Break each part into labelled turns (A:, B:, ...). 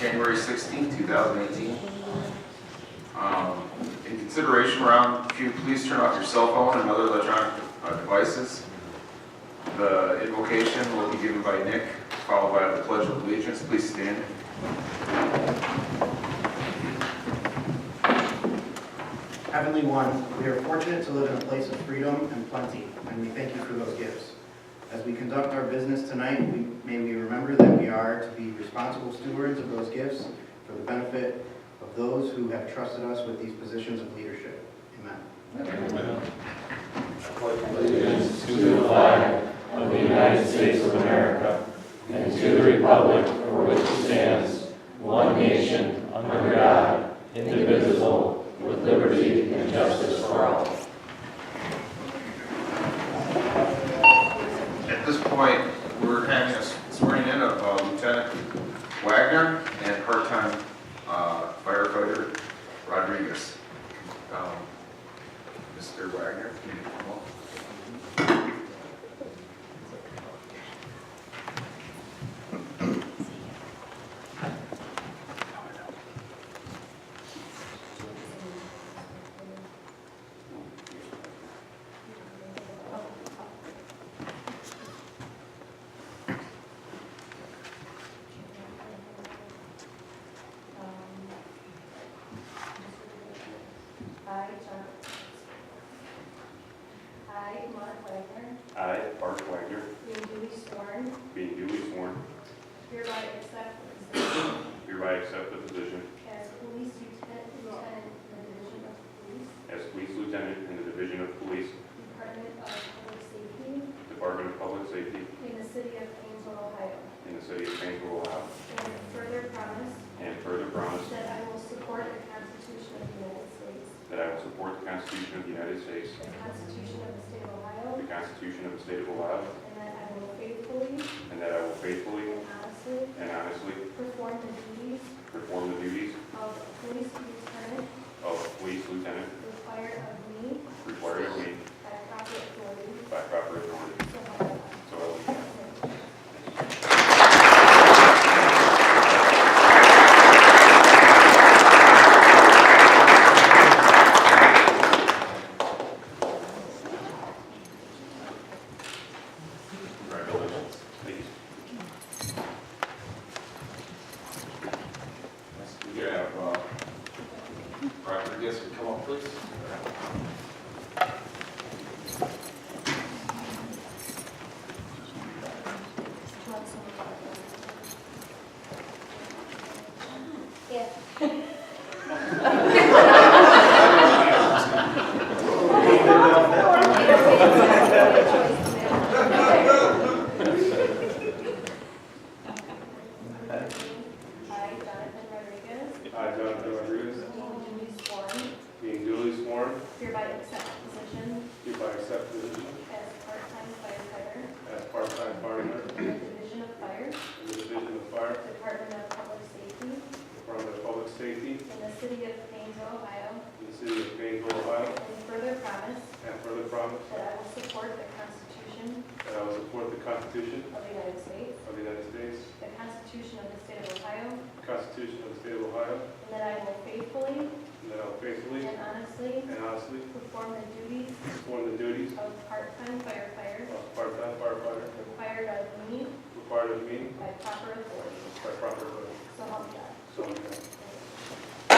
A: January 16, 2018. Um, In consideration round, if you please turn off your cell phone and other electronic uh, devices. The invocation will be given by Nick, followed by the pledge of allegiance. Please stand.
B: Heavenly One, we are fortunate to live in a place of freedom and plenty, and we thank you for those gifts. As we conduct our business tonight, we- may we remember that we are to be responsible stewards of those gifts for the benefit of those who have trusted us with these positions of leadership. Amen.
C: allegiance to the flag of the United States of America and to the republic for which it stands, one nation, under God, indivisible, with liberty and justice for all.
A: At this point, we're having a swearing in of uh, Lieutenant Wagner and part-time uh, firefighter Rodriguez. Um, Mr. Wagner, can you come up?
D: I, John. I, Mark Wagner,
E: I, Bart Wagner,
D: being duly sworn,
E: being duly sworn,
D: hereby accept the position
E: hereby accept the position
D: as police lieutenant lieutenant in the Division of Police,
E: as Police Lieutenant in the Division of Police,
D: Department of Public Safety
E: Department of Public Safety
D: in the city of Painesville, Ohio,
E: in the City of Painesville, Ohio,
D: and further promise
E: and further promise
D: that I will support the Constitution of the United States,
E: that I will support the Constitution of the United States,
D: the Constitution of the State of
E: the
D: Ohio,
E: Constitution of the State of Ohio,
D: and that I will faithfully
E: and that I will faithfully
D: and honestly
E: and honestly
D: perform the duties
E: perform the duties
D: of police lieutenant
E: of Police Lieutenant
D: required of me
E: required of me
D: by proper authority,
E: by proper authority.
D: so help me
E: So I will
D: God. Thank you.
E: Congratulations. Thank you.
A: We have uh, Rodriguez, come up, please.
D: Yeah. I, Jonathan Rodriguez,
E: I, Jonathan
D: being
E: Rodriguez,
D: duly sworn,
E: being duly sworn,
D: hereby accept the position
E: hereby accept the position
D: as part-time firefighter
E: as part-time fireman
D: in the Division of Fire,
E: in the Division of Fire,
D: Department of Public Safety,
E: Department of Public Safety,
D: in the city of Painesville, Ohio,
E: in the City of Painesville, Ohio,
D: and further promise
E: and further promise
D: that I will support the Constitution
E: that I will support the Constitution
D: of the United States,
E: of the United States,
D: the Constitution of the State of Ohio,
E: the Constitution of the State of Ohio,
D: and that I will faithfully
E: and that I will faithfully
D: and honestly
E: and honestly
D: perform the duties
E: perform the duties
D: of part-time firefighter
E: of part-time firefighter
D: required of me
E: required of me
D: by proper authority.
E: by proper authority.
D: So help me God.
E: So help me God.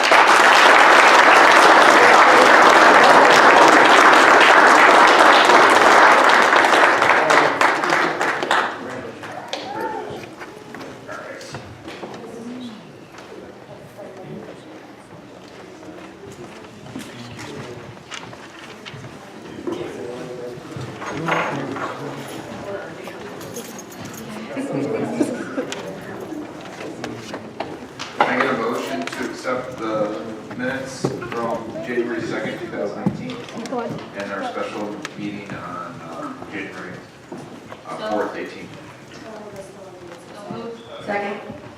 A: Can I get a motion to accept the minutes from January 2nd, 2019? And our special meeting on uh, January uh, 4th, 18th?
D: So, this one is-
F: Second.